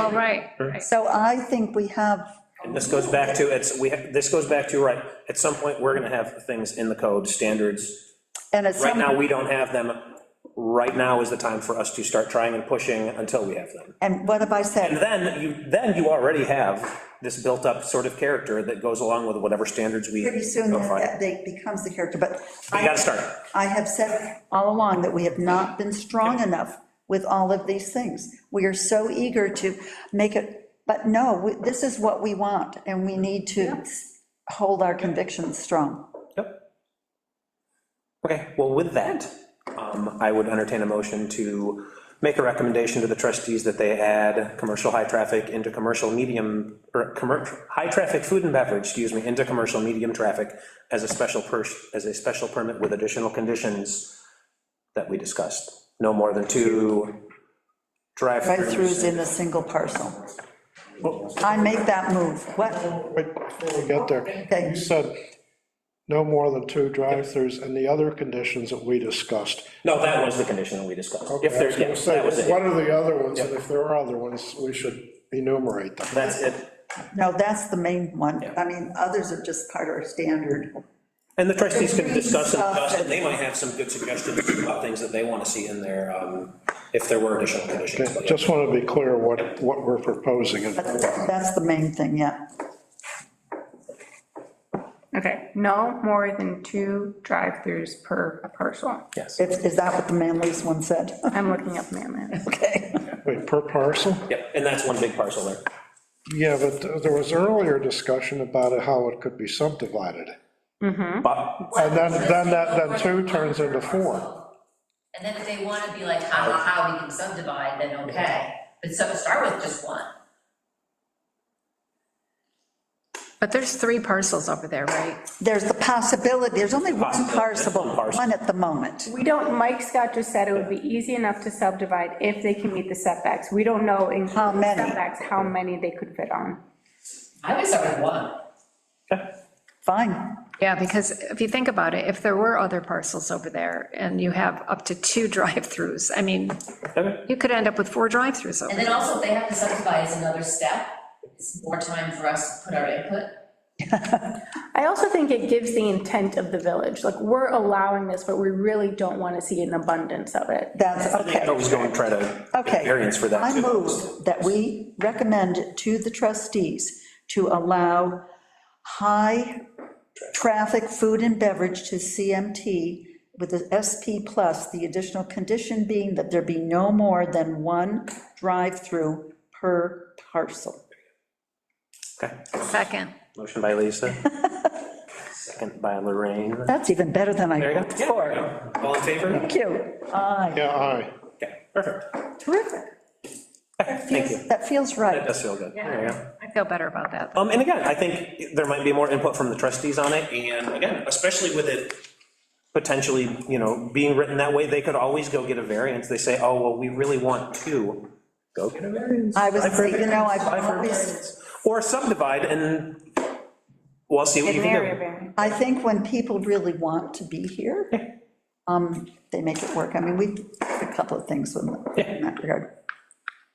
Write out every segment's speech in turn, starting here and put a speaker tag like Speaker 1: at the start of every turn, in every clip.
Speaker 1: Oh, right, right.
Speaker 2: So I think we have,
Speaker 3: And this goes back to, it's, we, ha- this goes back to, you're right, at some point, we're gonna have things in the code, standards.
Speaker 2: and it's
Speaker 3: Right now,
Speaker 2: some,
Speaker 3: we don't have them. Right now is the time for us to start trying and pushing until we have them.
Speaker 2: and what have I
Speaker 3: And
Speaker 2: said?
Speaker 3: then, you, then you already have this built-up sort of character that goes along with whatever standards we.
Speaker 2: Pretty soon,
Speaker 3: go
Speaker 2: that-
Speaker 3: find.
Speaker 2: that they becomes the character, but.
Speaker 3: We gotta start.
Speaker 2: I have said all along that we have not been strong enough with all of these things. We are so eager to make it, but no, we- this is what we want, and we need to hold our convictions strong.
Speaker 3: Yep. Okay, well, with that, um, I would entertain a motion to make a recommendation to the trustees that they add commercial high traffic into commercial medium, or commercial, high traffic food and beverage, excuse me, into commercial medium traffic as a special per, as a special permit with additional conditions that we discussed. No more than two
Speaker 2: Drive-throughs
Speaker 3: drive-throughs.
Speaker 2: in a single parcel. I make that move. What?
Speaker 4: Wait, before we get there,
Speaker 2: Okay.
Speaker 4: you said no more than two drive-throughs and the other conditions that we discussed.
Speaker 3: No, that was the condition that we discussed. If there's,
Speaker 4: I
Speaker 3: yeah,
Speaker 4: was gonna
Speaker 3: that was
Speaker 4: say,
Speaker 3: it.
Speaker 4: What are the other ones, and if there are other ones, we should enumerate them.
Speaker 3: That's it.
Speaker 2: No, that's the main one. I mean, others are just part of our standard.
Speaker 3: And the trustees can discuss and
Speaker 2: Stuff
Speaker 3: discuss, and
Speaker 2: that-
Speaker 3: they might have some good suggestions about things that they want to see in there, um, if there were additional conditions.
Speaker 4: Okay, Just want to be clear what, what we're proposing and
Speaker 2: That's,
Speaker 4: voting on.
Speaker 2: that's the main thing, yeah.
Speaker 1: Okay, no more than two drive-throughs per parcel.
Speaker 3: Yes.
Speaker 2: Is, is that what the Manly's one said?
Speaker 1: I'm looking up Manland.
Speaker 2: Okay.
Speaker 4: Wait, per parcel?
Speaker 3: Yep, and that's one big parcel there.
Speaker 4: Yeah, but there was earlier discussion about it, how it could be subdivided.
Speaker 2: Hmm?
Speaker 3: But,
Speaker 4: And then, then that, then two turns into four.
Speaker 5: And then if they wanna be like, ha, ha, ha, we can subdivide, then okay, but so start with just one.
Speaker 6: But there's three parcels over there, right?
Speaker 2: There's the possibility, there's only one
Speaker 3: Possibility,
Speaker 2: parcel,
Speaker 3: one parcel.
Speaker 2: one at the moment.
Speaker 1: We don't, Mike Scott just said it would be easy enough to subdivide if they can meet the setbacks. We don't know in
Speaker 2: How many?
Speaker 1: setbacks, how many they could fit on.
Speaker 5: I would start with one.
Speaker 2: Fine.
Speaker 6: Yeah, because if you think about it, if there were other parcels over there and you have up to two drive-throughs, I mean,
Speaker 3: okay,
Speaker 6: you could end up with four drive-throughs over
Speaker 5: And then also, if they have to subdivide is another step, it's more time for us to put our input.
Speaker 1: I also think it gives the intent of the village, like, we're allowing this, but we really don't want to see an abundance of it.
Speaker 2: That's, okay,
Speaker 3: I was going to try to get
Speaker 2: okay.
Speaker 3: variance for that.
Speaker 2: I
Speaker 3: too.
Speaker 2: move that we recommend to the trustees to allow high-traffic food and beverage to CMT with the SP plus, the additional condition being that there be no more than one drive-through per parcel.
Speaker 3: Okay,
Speaker 6: Second.
Speaker 3: motion by Lisa, second by Lorraine.
Speaker 2: That's even better than I
Speaker 3: There you
Speaker 2: hoped
Speaker 3: go. Yeah, there
Speaker 2: for.
Speaker 3: you go. All in favor?
Speaker 2: Thank you. Aye,
Speaker 4: Yeah, aye.
Speaker 3: Okay, perfect.
Speaker 2: terrific.
Speaker 3: Thank you.
Speaker 2: That feels
Speaker 3: That
Speaker 2: right.
Speaker 3: does feel good. There you go.
Speaker 6: I feel better about that.
Speaker 3: Um, and again, I think there might be more input from the trustees on it, and again, especially with it potentially, you know, being written that way, they could always go get a variance, they say, oh, well, we really want two, go get a variance.
Speaker 2: I was,
Speaker 3: Five for
Speaker 2: you know,
Speaker 3: variance, five
Speaker 2: I've
Speaker 3: for
Speaker 2: always,
Speaker 3: variance. Or subdivide, and we'll see what you can do.
Speaker 2: I think when people really want to be here, um, they make it work. I mean, we, did a couple of things in that regard.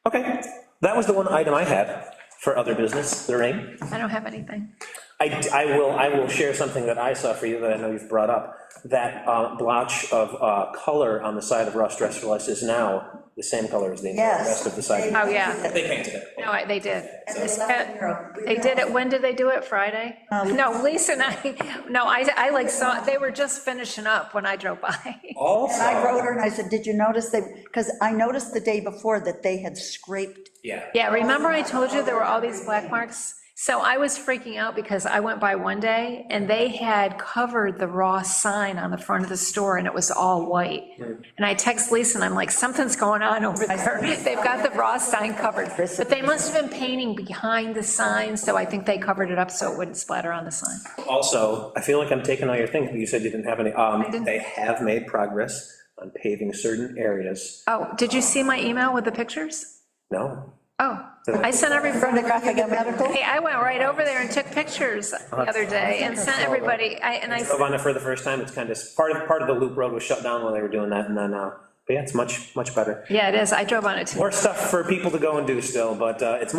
Speaker 3: Okay, that was the one item I had for other business, Lorraine?
Speaker 6: I don't have anything.
Speaker 3: I, I will, I will share something that I saw for you that I know you've brought up. That uh, blotch of uh, color on the side of Russ Dress for Less is now the same color as the entire
Speaker 2: Yes.
Speaker 3: rest of the side.
Speaker 6: Oh, yeah.
Speaker 3: They painted it.
Speaker 6: No, I- they did.
Speaker 2: And they left in Europe.
Speaker 6: They did it, when did they do it? Friday? No, Lisa and I, no, I, I like saw, they were just finishing up when I drove by.
Speaker 2: And I
Speaker 3: Also,
Speaker 2: wrote her and I said, did you notice they, because I noticed the day before that they had scraped,
Speaker 3: yeah,
Speaker 6: Yeah, remember I told you there were all these black marks? So I was freaking out because I went by one day and they had covered the raw sign on the front of the store and it was all white. And I text Lisa and I'm like, something's going on over there. They've got the raw sign covered. But they must have been painting behind the sign, so I think they covered it up so it wouldn't splatter on the sign.
Speaker 3: also, I feel like I'm taking all your things, but you said you didn't have any. Um,
Speaker 6: didn't.
Speaker 3: they have made progress on paving certain areas.
Speaker 6: Oh, did you see my email with the pictures?
Speaker 3: No,
Speaker 6: Oh, I sent every,
Speaker 2: pornographic and medical.
Speaker 6: hey, I went right over there and took pictures the other day and sent everybody, I, and I.
Speaker 3: drove on it for the first time, it's kind of, part of, part of the loop road was shut down while they were doing that, and then, uh, But yeah, it's much, much better.
Speaker 6: Yeah, it is. I drove on it too.
Speaker 3: More stuff for people to go and do still, but uh, it's